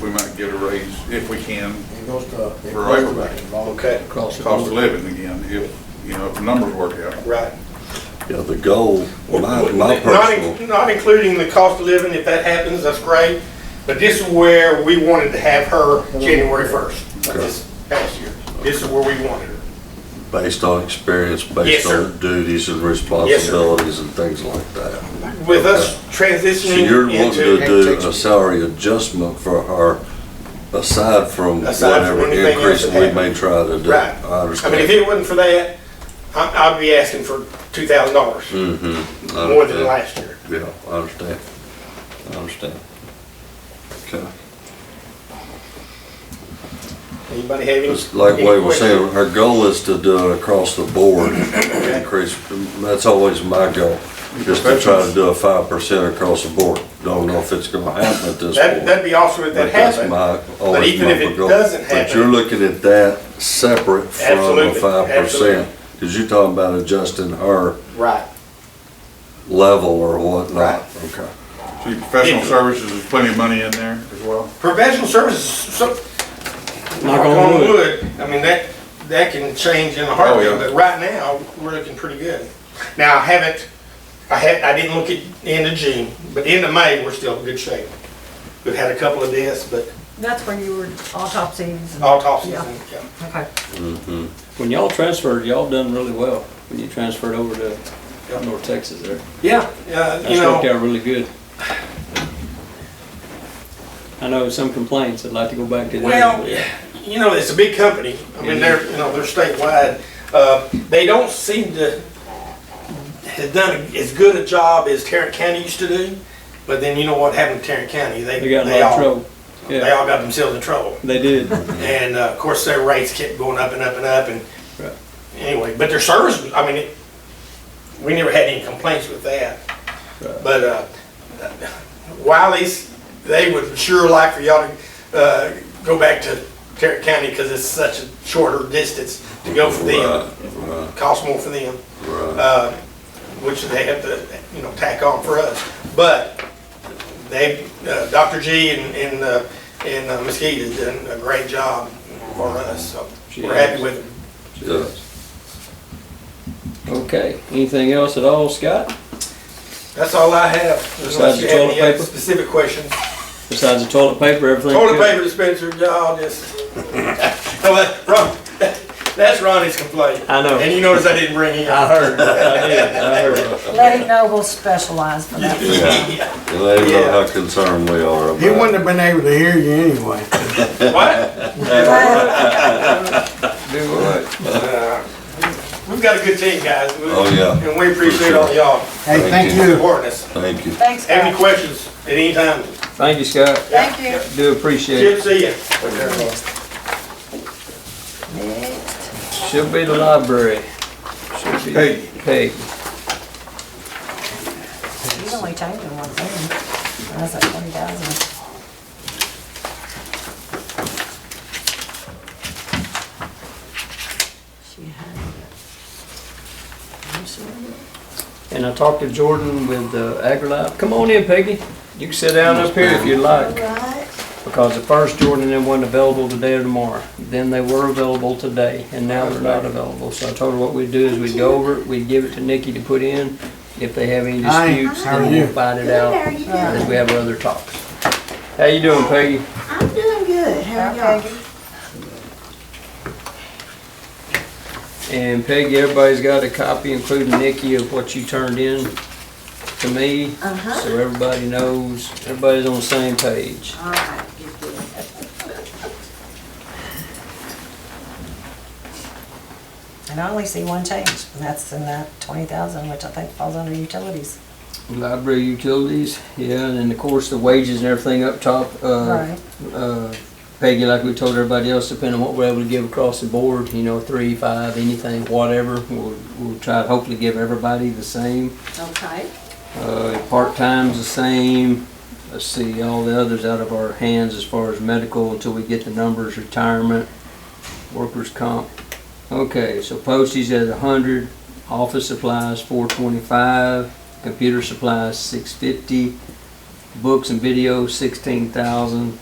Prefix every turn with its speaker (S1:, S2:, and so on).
S1: we might get a raise if we can,
S2: It goes to. it
S1: For right
S2: goes
S1: of way.
S2: back involved.
S3: Okay.
S4: Across the
S1: cost of
S4: board.
S1: living again, if, you know, if the numbers work out.
S3: Right.
S5: Yeah, the goal, my, my
S3: Not in-
S5: personal,
S3: Not including the cost of living, if that happens, that's great, but this is where we wanted to have her January first of this past year. This is where we wanted her.
S5: based on experience,
S3: Yes,
S5: based
S3: sir.
S5: on duties and responsibilities and things like that.
S3: With us
S5: So
S3: transitioning
S5: you're wanting
S3: into.
S5: to do a salary adjustment for her aside from
S3: Aside from
S5: whatever
S3: anything else
S5: increase
S3: that
S5: we may try to do.
S3: Right.
S5: I
S3: I mean, if
S5: understand.
S3: it wasn't for that, I, I'd be asking for two thousand dollars,
S5: Mhm, I
S3: more than
S5: understand.
S3: last year.
S5: Yeah, I understand. I understand. Okay.
S3: Anybody have any?
S5: It's like
S3: any
S5: Wade was
S3: questions?
S5: saying, our goal is to do it across the board
S3: Okay.
S5: increase. That's always my goal, just to try to do a five percent across the board. Don't know if it's gonna happen at this
S3: That,
S5: point.
S3: that'd be awesome if
S5: But
S3: that
S5: that's
S3: happened.
S5: my,
S3: But
S5: always
S3: even if
S5: my
S3: it
S5: goal.
S3: doesn't
S5: But you're
S3: happen,
S5: looking at that separate from a
S3: Absolutely,
S5: five
S3: absolutely.
S5: percent. Cause you're talking about adjusting her
S3: right,
S5: level or whatnot.
S3: Right.
S5: Okay.
S1: So your professional services, there's plenty of money in there as well.
S3: professional services, so, knock on wood, I mean, that, that can change in a
S1: Oh,
S3: heartbeat,
S1: yeah.
S3: but right now, we're looking pretty good. Now, I haven't, I had, I didn't look at the end of June, but end of May, we're still in good shape. We've had a couple of deaths, but
S6: That's when you were autopsies and,
S3: autopsies,
S6: Yeah.
S3: and, yeah.
S6: okay.
S4: When y'all transferred, y'all done really well, when you transferred over to North Texas there.
S3: Yeah, yeah, you
S4: That's worked
S3: know,
S4: out really good. I know some complaints, I'd like to go back to that.
S3: well, you know, it's a big company. I mean, they're, you know, they're statewide. Uh, They don't seem to have done as good a job as Tarrant County used to do, but then you know what happened to Tarrant County? They,
S4: They got in
S3: they
S4: a lot of
S3: all,
S4: trouble.
S3: they
S4: Yeah,
S3: all got themselves in trouble.
S4: they did.
S3: And uh, of course, their rates kept going up and up and up and,
S4: Right.
S3: anyway, but their service, was- I mean, it- we never had any complaints with that.
S4: Right.
S3: But uh, Wiley's, they would sure like for y'all to uh, go back to Tarrant County because it's such a shorter distance to go for them.
S5: Right,
S3: Costs more for them,
S5: right, right.
S3: uh, which they have to, you know, tack on for us. But they, uh, Dr. G and, and, uh, and uh, Mesquite has done a great job for us, so we're happy with them.
S5: Yeah.
S4: Okay, anything else at all, Scott?
S3: That's all I have. Unless
S4: Besides
S3: you
S4: the
S3: have
S4: toilet
S3: any other
S4: paper?
S3: specific questions.
S4: Besides the toilet paper, everything
S3: Toilet
S4: good?
S3: paper dispenser, y'all just, no, that, Ron, that's Ronnie's complaint.
S4: I know.
S3: And you notice I didn't bring him.
S4: I heard, I did, I heard.
S6: Let him know we'll specialize for that.
S3: Yeah.
S5: And they know
S3: Yeah.
S5: how concerned we are about
S2: He
S5: it.
S2: wouldn't have been able to hear you anyway.
S3: What?
S4: Do what?
S5: Right.
S3: Uh, We've got a good team, guys. We-
S5: Oh, yeah.
S3: And we appreciate all y'all
S2: Hey,
S5: Thank
S2: thank
S5: you.
S2: you.
S3: supporting us.
S5: Thank you.
S6: Thanks,
S3: Have any
S6: guys.
S3: questions at any time,
S4: Thank you, Scott.
S6: Thank you.
S4: Do appreciate it.
S3: Chip, see ya.
S6: Next.
S4: Should be the library. Should be.
S1: Hey.
S4: Hey,
S6: He's only taking one thing. That's like twenty thousand. She had it. I'm sorry.
S4: and I talked to Jordan with uh, AgriLife. Come on in, Peggy. You can sit down up here if you'd like.
S6: Right.
S4: Because at first Jordan and them weren't available today or tomorrow. Then they were available today, and now they're not available. So I told her what we'd do is we'd go over it, we'd give it to Nikki to put in. If they have any
S2: Hi,
S4: disputes,
S2: how are
S4: then we'll
S2: you?
S4: find it out
S7: you
S4: as we have our other talks. How you doing, Peggy?
S7: I'm doing good. How are
S6: Hi,
S7: y'all?
S6: Peggy.
S4: And Peggy, everybody's got a copy, including Nikki, of what you turned in to me.
S7: Uh-huh.
S4: So everybody knows, everybody's on the same page.
S7: All right, good deal.
S6: And I only see one change, and that's in that twenty thousand, which I think falls under utilities.
S4: Library utilities, yeah, and then of course the wages and everything up top. uh,
S6: Right.
S4: uh, Peggy, like we told everybody else, depending on what we're able to give across the board, you know, three, five, anything, whatever. We'll, we'll try to hopefully give everybody the same.
S7: Okay.
S4: Uh, Part-time's the same. Let's see, all the others out of our hands as far as medical until we get the numbers, retirement, workers' comp. Okay, so postage at a hundred, office supplies four twenty-five, computer supplies six fifty, books and video sixteen thousand,